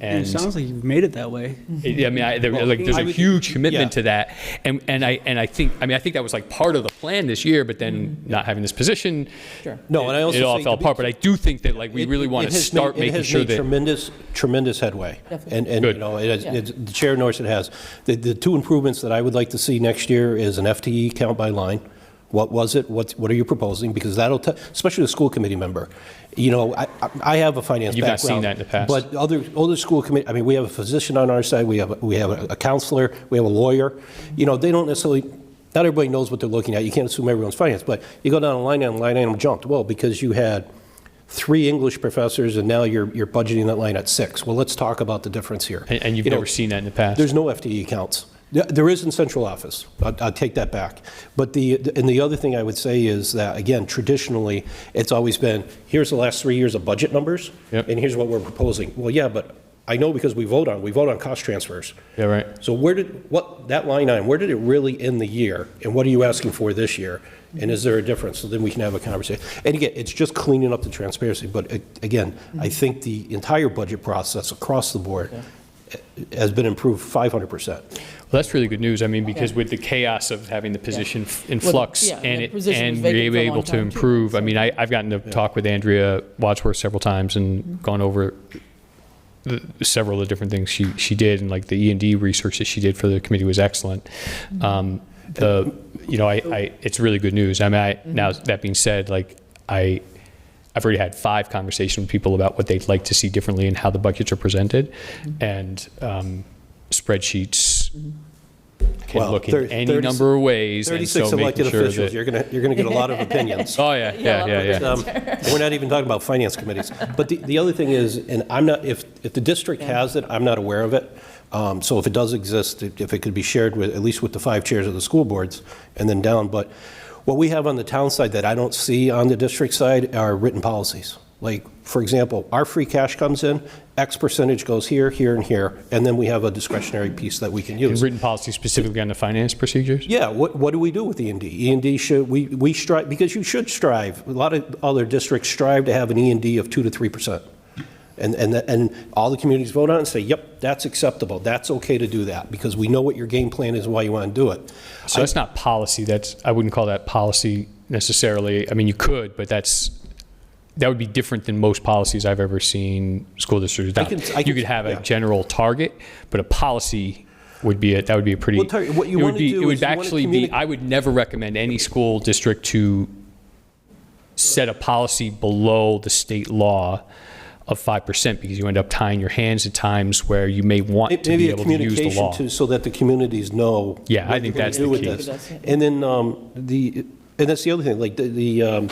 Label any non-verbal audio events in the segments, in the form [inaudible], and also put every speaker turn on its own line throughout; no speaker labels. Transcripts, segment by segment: And
It sounds like you've made it that way.
yeah, I mean, I, there, like, there's
I
a
would-
huge commitment
yeah.
to that, and and I and I think, I mean, I think that was like part of the plan this year, but then
Mm-hmm.
not having this position,
No, and I also
it all
think
fell
to be-
apart. But I do think that like we
It-
really
it-
want
it
to
has
start
made-
making sure
It has made
that
tremendous, tremendous headway.
Definitely.
And, and,
Good.
you know, it has-
Yeah.
it's- the Chair notes it has. The, the two improvements that I would like to see next year is an FTE count by line. What was it? What, what are you proposing? Because that'll, te- especially the school committee member. You know, I, I- I have a finance
You've
background.
not seen that in the past.
But other, other school committee, I mean, we have a physician on our side, we have, we have a counselor, we have a lawyer. You know, they don't necessarily, not everybody knows what they're looking at. You can't assume everyone's finance, but you go down a line item, line item jumped. Well, because you had three English professors and now you're, you're budgeting that line at six. Well, let's talk about the difference here.
and, and you've
You know,
never seen that in the past.
there's no FTE counts. There- There is in central office. I I take that back. But the, and the other thing I would say is that, again, traditionally, it's always been, here's the last three years of budget numbers,
Yep.
and here's what we're proposing. Well, yeah, but I know because we vote on, we vote on cost transfers.
Yeah, right.
So where did, what, that line item, where did it really end the year? And what are you asking for this year? And is there a difference? So then we can have a conversation. And again, it's just cleaning up the transparency. But uh, again,
Mm-hmm.
I think the entire budget process across the board has been improved 500%.
Well, that's really good news. I mean, because with the chaos of having the position f- in
Well, the-
flux
yeah,
and
the
it,
position
and
was vacant
being
for a long
able to
time, too,
improve. I mean, I, I've gotten to talk with Andrea Wadsworth several times
Mm-hmm.
and gone over the, several of the different things she, she did and like the E and D research that she did for the committee was excellent. Um, the, you know, I, I, it's really good news. I mean, I, now that being said, like I, I've already had five conversations with people about what they'd like to see differently and how the budgets are presented and, um, spreadsheets can
Well,
look in
thir-
any
36
number of ways. and
36
so making
elected
sure
officials,
that-
you're going to, you're going to get a
[laughs]
lot of opinions.
oh, yeah, yeah, yeah, yeah.
Um, We're not even talking about finance committees. But the, the other thing is, and I'm not, if, if the district has it, I'm not aware of it. Um, So if it does exist, if if it could be shared with, at least with the five chairs of the school boards and then down. But what we have on the town side that I don't see on the district side are written policies. Like, for example, our free cash comes in, X percentage goes here, here, and here, and then we have a discretionary piece that we can use.
And written policy specifically on the finance procedures?
Yeah, what, what do we do with E and D? E and D should, we, we strive, because you should strive, a lot of other districts strive to have an E and D of 2 to 3%. And, and, that- and all the communities vote on it and say, yep, that's acceptable, that's okay to do that, because we know what your game plan is and why you want to do it.
So that's not policy. That's, I wouldn't call that policy necessarily. I mean, you could, but that's, that would be different than most policies I've ever seen school districts
I
adopt.
can- I
You
can-
could have a
yeah.
general target, but a policy would be, a- that would be a pretty.
Well, Terry, what you
it would
wanna
be-
do
It would
is you wanna
actually be,
communi-
I would never recommend any school district to set a policy below the state law of 5% because you end up tying your hands at times where you may want to
Maybe
be
a
able to use the
communication
law.
to, so that the communities know.
Yeah, I
what
think
they're
that's
gonna do
the
with
key.
this. And then um, the, and that's the other thing, like the, the, um,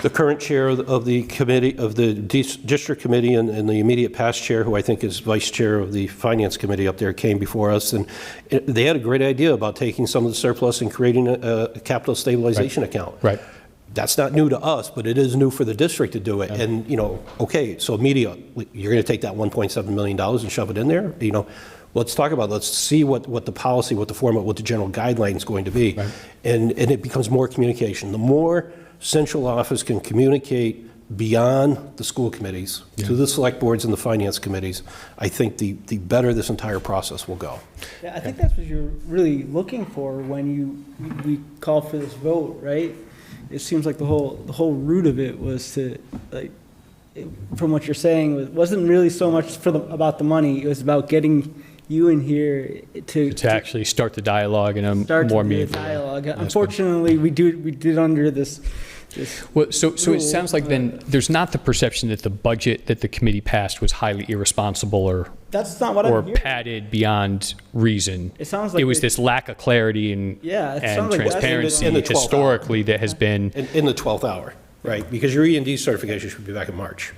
the current chair of the- of the committee, of the dis- district committee and, and the immediate past chair, who I think is vice chair of the finance committee up there, came before us. And it- they had a great idea about taking some of the surplus and creating a, a capital stabilization account.
Right.
That's not new to us, but it is new for the district to do it. And, you know, okay, so media, you're going to take that $1.7 million and shove it in there? You know, let's talk about, let's see what, what the policy, what the format, what the general guideline is going to be. And, and it becomes more communication. The more central office can communicate beyond the school committees, to the select boards and the finance committees, I think the, the better this entire process will go.
Yeah, I think that's what you're really looking for when you, we call for this vote, right? It seems like the whole, the whole root of it was to, like, it- from what you're saying, it wasn't really so much for the, about the money, it was about getting you in here to.
to actually start the dialogue in a
Start
more
the
meaningful way.
dialogue.
good.
Unfortunately, we do, we did under this, this
Well, so, so it
Rule,
sounds like then there's not the perception that the budget that the committee passed was highly irresponsible or,
That's not what
or
I'm hearing.
padded beyond reason.
It sounds like
It was
they-
this lack of clarity and,
Yeah, it
and
sounds like that's-
transparency
In the 12th hour.
historically that has been,
In, in the 12th hour, right? Because your E and D certification should be back in March.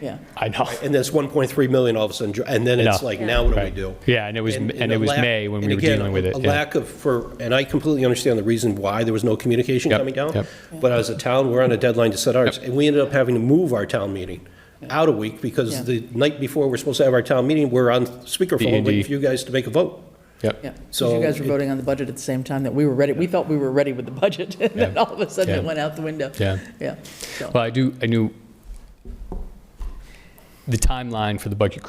Yeah.
I know.
And that's 1.3 million all of a sudden, and then it's
No.
like, now what do we
Right.
do?
Yeah, and it was- and it
a
was
lack-
May when we
and
were
again,
dealing with it,
A
yeah.
lack of, for, and I completely understand the reason why there was no communication
Yep,
coming down,
yep.
but as a town, we're on a deadline to set ours, and we ended up having to move our town meeting out a week, because
Yeah.
the night before we're supposed to have our town meeting, we're on
The
speakerphone
ND.
waiting for you guys to make a vote.
Yep.
Yeah, 'cause
So
you guys were
it-
voting on the budget at the same time that we were ready, we felt we were ready with the budget, [laughs] and then
Yeah.
all of a sudden it
Yeah.
went out the window.
Yeah.
Yeah, so.
Well, I do, I knew the timeline for the budget